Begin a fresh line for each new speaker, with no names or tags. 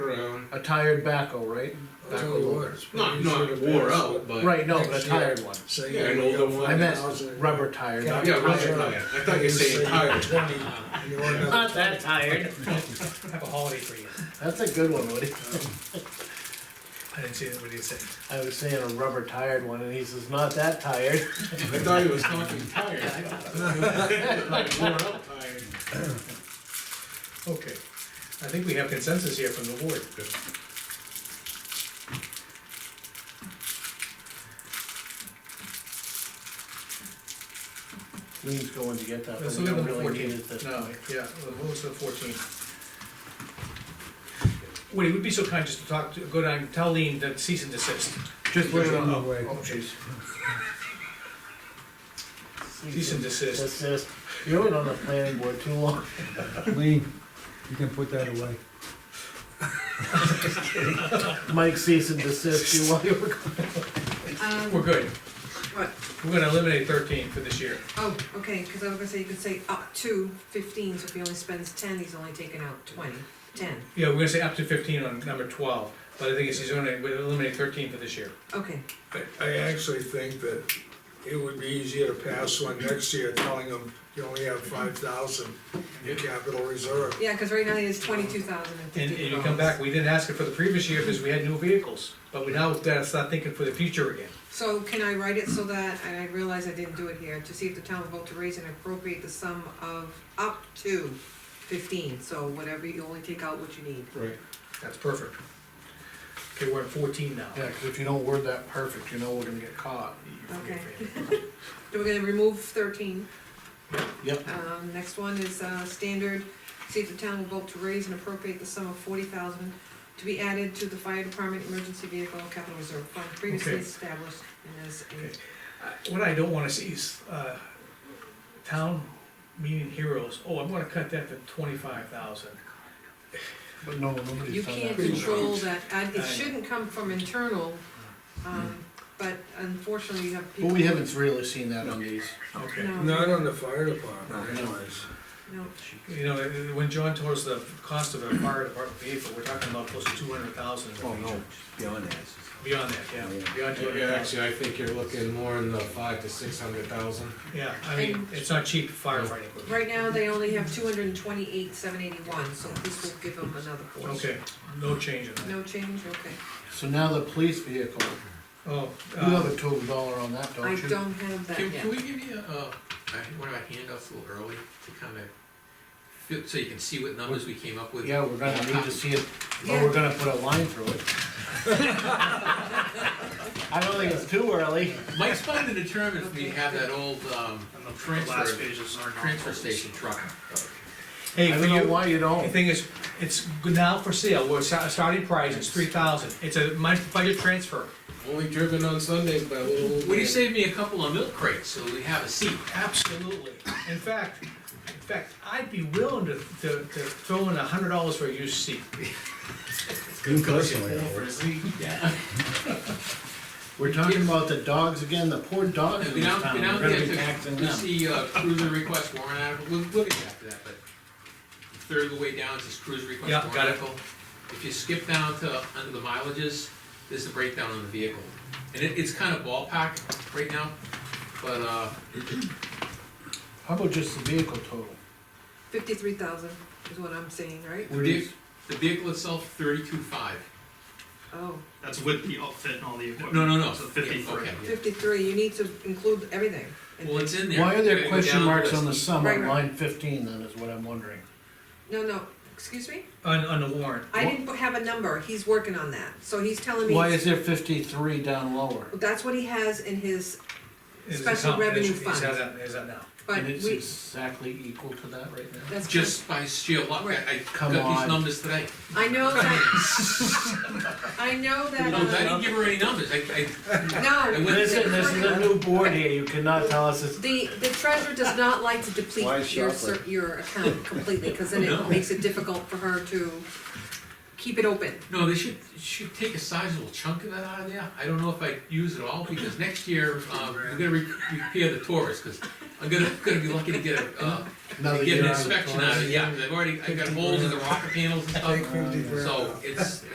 a tired backhoe, right?
That's
Backhoe
what it
loader.
was.
Not,
You
not
should've
wore
asked
out,
what-
but.
Right, no, but
Next
a tired
year.
one.
So
Yeah,
you
an
know,
older
you
one.
I meant rubber
I
tired.
got
Yeah, rubber
tired.
tire. I thought you said
say
tired.
Twenty, and you're another
Not that tired.
have a holiday for you.
That's a good one, Woody.
I didn't see that, what did you say?
I was saying a rubber tired one, and he says, not that tired.
I thought he was talking tired. Like wore out tired.
Okay, I think we have consensus here from the board.
Lean's going to get that, but
Let's
we
look
don't
at the
really need it
fourteenth.
this
No,
time.
yeah, what was the fourteenth? Woody, would be so kind just to talk, to go down, tell Lean that cease and desist.
Just leave it on.
way.
Oh, jeez. Cease and desist.
That's just, you were on the planning board too long.
Lean, you can put that away.
Mike cease and desist you while you were gone.
We're
Um,
good.
what,
We're gonna eliminate thirteen for this year.
oh, okay, cause I was gonna say, you could say up to fifteen, so if he only spends ten, he's only taking out twenty, ten,
Yeah, we're gonna say up to fifteen on number twelve, but I think it's, he's gonna eliminate thirteen for this year.
okay.
I, I actually think that it would be easier to pass one next year telling them you only have five thousand in your capital reserve.
Yeah, cause right now he has twenty-two thousand and
And,
fifty
and
dollars.
you come back, we didn't ask it for the previous year because we had new vehicles, but we now gotta start thinking for the future again.
So can I write it so that, and I realize I didn't do it here, to see if the town will vote to raise and appropriate the sum of up to fifteen, so whatever, you only take out what you need.
Right. That's perfect. Okay, we're at fourteen now.
Yeah, 'cause if you don't word that perfect, you know we're gonna get caught.
Okay. Then we're gonna remove thirteen.
Yep.
Um, next one is, uh, standard, see if the town will vote to raise and appropriate the sum of forty thousand to be added to the fire department emergency vehicle capital reserve fund previously
Okay.
established and as
Okay. I- What I don't wanna see is, uh, town meeting heroes, oh, I'm gonna cut that to twenty-five thousand.
But no,
in.
nobody's
You
done
can't
that.
control that, uh,
I know.
it shouldn't come from internal, um, but unfortunately you have people.
But we haven't really seen that on these.
Okay.
No,
Not on the fire department
No.
anyways.
no,
You know, uh, when John told us the cost of a fire department vehicle, we're talking about close to two hundred thousand in
Oh,
Oh,
the future.
beyond that.
Beyond that, yeah, beyond two
Yeah,
hundred thousand.
actually, I think you're looking more in the five to six hundred thousand.
Yeah, I mean, it's not cheap firefighting. equipment.
right now they only have two hundred and twenty-eight, seven eighty-one, so this will give them another portion.
Okay, no change in that.
No change, okay.
So now the police vehicle,
Oh,
you have
uh,
a total dollar on that, don't
I
you?
don't have that
Can,
yet.
can we give you, uh, I- one of our handouts a little early to kind of, fit- so you can see what numbers we came up with?
Yeah, we're gonna need to see it, or we're gonna put a line through it. I don't think it's too early.
Mike's trying to determine if we have that old, um,
Last
transfer,
page is our
transfer station truck.
hey,
I
for
don't know
you,
why you
The
don't.
thing is, it's now for sale, we're sa- starting price, it's three thousand, it's a month budget transfer.
Only driven on Sundays by a little. old
Would you
man.
save me a couple of milk crates so we have a seat?
Absolutely. In fact, in fact, I'd be willing to, to, to throw in a hundred dollars for a used seat.
You personally, I would.
We're talking about the dogs again, the poor dogs
And
in
We
this
don't,
town.
we don't
We're gonna be
get to,
taxing
we
them.
see uh, cruiser request warrant article, we'll, we'll get back to that, but third of the way down is cruiser request
Yeah,
warrant
got it.
article. If you skip down to, under the mileages, there's the breakdown on the vehicle. And it, it's kind of ballpark right now, but, uh,
How about just the vehicle total?
Fifty-three thousand is what I'm saying, right?
We're just-
the vehicle itself, thirty-two five.
Oh,
That's with the outfit and all the equipment.
No, no, no.
So
Yeah,
fifty-three.
okay, yeah.
fifty-three, you need to include everything. in
Well,
there.
it's in there.
Why are
You
there
go
question
down
marks
list.
on the sum
Right,
on
right.
line fifteen then, is what I'm wondering?
No, no, excuse me?
On, on the warrant.
I didn't have a number, he's working on that, so he's telling me.
Why is there fifty-three down lower?
That's what he has in his,
It's
Special
account-
revenue
it's- it's-
fund.
Is that, is that now?
but
And it's
we,
exactly equal to that right now?
that's just,
Just by sheer luck, I, I
Come
got
on.
these numbers today.
I know that. I know that,
No, I didn't
uh,
give her any numbers, I, I, I
no,
went.
Listen, this is a new board here, you cannot tell us it's
the, the treasurer does not like to
Why
deplete
is
your,
Shopland?
cer- your account completely, cause then
No.
it makes it difficult for her to keep it open.
No, they should, should take a sizable chunk of that out of there. I don't know if I use it all, because next year, um, we're gonna re- repair the Taurus, because I'm gonna, gonna be lucky to get a, uh,
another
get
year
an
out of the
inspection
car.
out of it, yeah. I've already, I got holes in the rocker panels and
Um,
Take
stuff,
fifty grand
so
off.
it's,